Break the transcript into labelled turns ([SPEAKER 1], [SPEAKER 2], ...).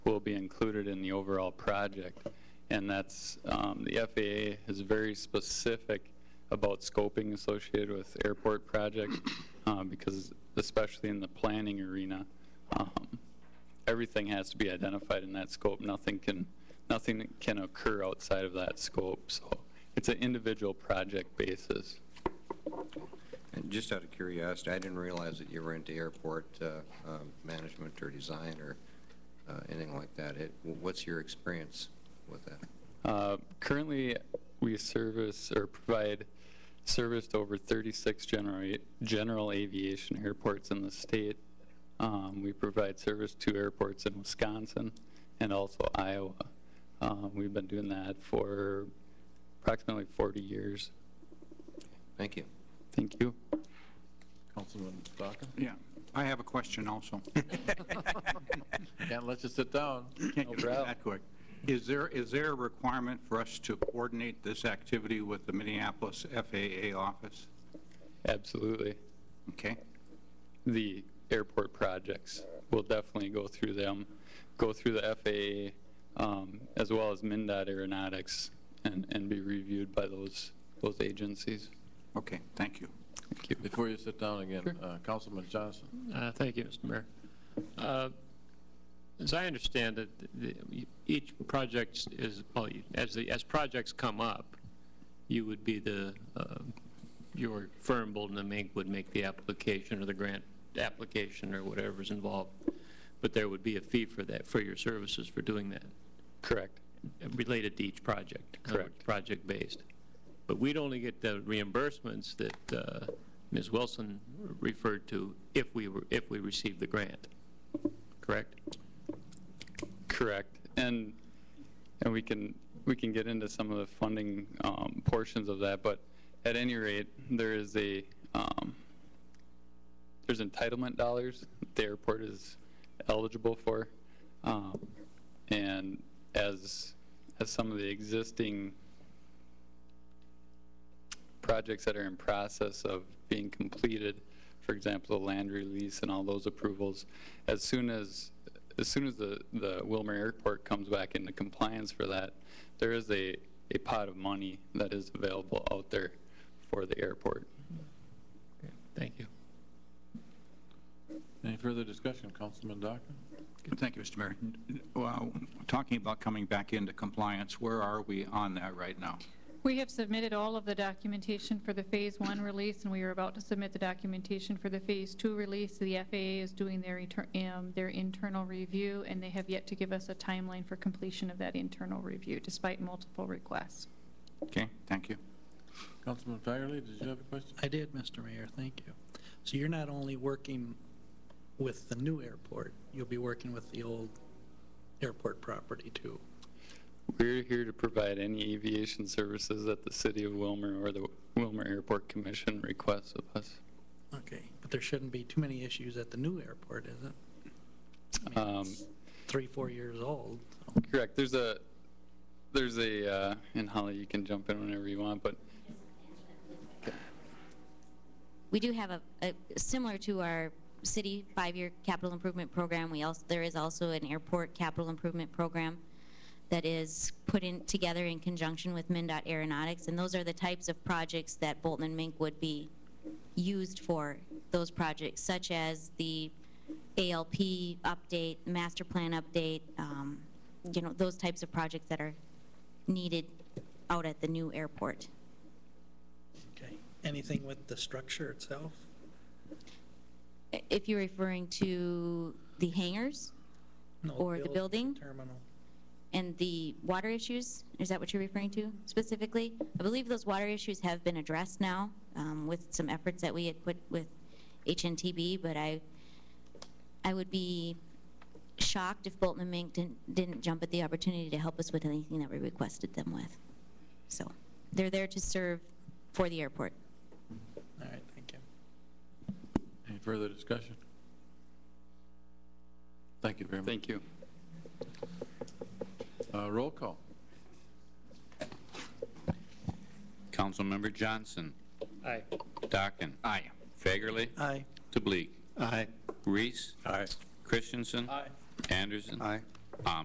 [SPEAKER 1] be included in the overall project. And that's, um, the FAA is very specific about scoping associated with airport projects, um, because especially in the planning arena, um, everything has to be identified in that scope. Nothing can, nothing can occur outside of that scope. So it's an individual project basis.
[SPEAKER 2] And Just out of curiosity, I didn't realize that you were into airport uh, um, management or design or uh, anything like that. It- What's your experience with that?
[SPEAKER 1] Uh, Currently, we service or provide service to over 36 general, general aviation airports in the state. Um, We provide service to airports in Wisconsin and also Iowa. Um, We've been doing that for approximately 40 years.
[SPEAKER 2] Thank you.
[SPEAKER 1] Thank you.
[SPEAKER 3] Councilman Baca?
[SPEAKER 4] Yeah, I have a question also.
[SPEAKER 3] Can't let you sit down.
[SPEAKER 4] Can't get through
[SPEAKER 1] problem.
[SPEAKER 4] that quick. Is there, is there a requirement for us to coordinate this activity with the Minneapolis FAA office?
[SPEAKER 1] Absolutely.
[SPEAKER 4] Okay,
[SPEAKER 1] the airport projects. We'll definitely go through them, go through the FAA, um, as well as MinDOT Aeronautics, and, and be reviewed by those, those agencies.
[SPEAKER 4] okay, thank you.
[SPEAKER 1] Thank you.
[SPEAKER 3] Before you sit down again, uh, Councilman Johnson?
[SPEAKER 5] Uh, Thank you, Mr. Mayor. Uh, As I understand it, the- each project is, well, you- as the, as projects come up, you would be the, uh, your firm, Bolden and Mink, would make the application or the grant application or whatever's involved, but there would be a fee for that, for your services for doing that,
[SPEAKER 1] Correct.
[SPEAKER 5] related to each project. in other words,
[SPEAKER 1] Correct.
[SPEAKER 5] Project-based. But we'd only get the reimbursements that uh, Ms. Wilson referred to if we were, if we received the grant, correct?
[SPEAKER 1] Correct. And, and we can, we can get into some of the funding um, portions of that, but at any rate, there is a, um, there's entitlement dollars that the airport is eligible for. Um, And as, as some of the existing projects that are in process of being completed, for example, the land release and all those approvals, as soon as, as soon as the, the Wilmer Airport comes back into compliance for that, there is a, a pot of money that is available out there for the airport.
[SPEAKER 5] Thank you.
[SPEAKER 3] Any further discussion, Councilman Baca?
[SPEAKER 4] Thank you, Mr. Mayor. Well, talking about coming back into compliance, where are we on that right now?
[SPEAKER 6] We have submitted all of the documentation for the Phase 1 release, and we are about to submit the documentation for the Phase 2 release. The FAA is doing their, inter- um, their internal review, and they have yet to give us a timeline for completion of that internal review, despite multiple requests.
[SPEAKER 4] Okay, thank you.
[SPEAKER 3] Councilman Fagerly, did you have a question?
[SPEAKER 7] I did, Mr. Mayor, thank you. So you're not only working with the new airport, you'll be working with the old airport property too.
[SPEAKER 1] We're here to provide any aviation services that the city of Wilmer or the Wilmer Airport Commission requests of us.
[SPEAKER 7] Okay, but there shouldn't be too many issues at the new airport, is it? I mean,
[SPEAKER 1] Um,
[SPEAKER 7] it's Three, four years old. so-
[SPEAKER 1] Correct, there's a, there's a, uh, and Holly, you can jump in whenever you want, but
[SPEAKER 8] We do have a, a, similar to our city five-year capital improvement program, we also, there is also an airport capital improvement program that is put in, together in conjunction with MinDOT Aeronautics, and those are the types of projects that Bolton and Mink would be used for, those projects, such as the ALP update, master plan update, um, you know, those types of projects that are needed out at the new airport.
[SPEAKER 7] Okay, anything with the structure itself?
[SPEAKER 8] I- If you're referring to the hangars
[SPEAKER 7] No,
[SPEAKER 8] Or the building?
[SPEAKER 7] Terminal.
[SPEAKER 8] and the water issues, is that what you're referring to specifically? I believe those water issues have been addressed now um, with some efforts that we had put with HNTB, but I, I would be shocked if Bolton and Mink didn't, didn't jump at the opportunity to help us with anything that we requested them with. So they're there to serve for the airport.
[SPEAKER 7] All right, thank you.
[SPEAKER 3] Any further discussion? Thank you very much.
[SPEAKER 1] thank you.
[SPEAKER 3] Uh, Roll call.
[SPEAKER 9] Councilmember Johnson.
[SPEAKER 5] Aye.
[SPEAKER 9] Dockin.
[SPEAKER 4] Aye.
[SPEAKER 9] Fagerly.
[SPEAKER 7] Aye.
[SPEAKER 9] DeBleek.
[SPEAKER 7] Aye.
[SPEAKER 9] Reese.
[SPEAKER 3] Aye.
[SPEAKER 9] Christensen. Anderson.
[SPEAKER 4] Aye.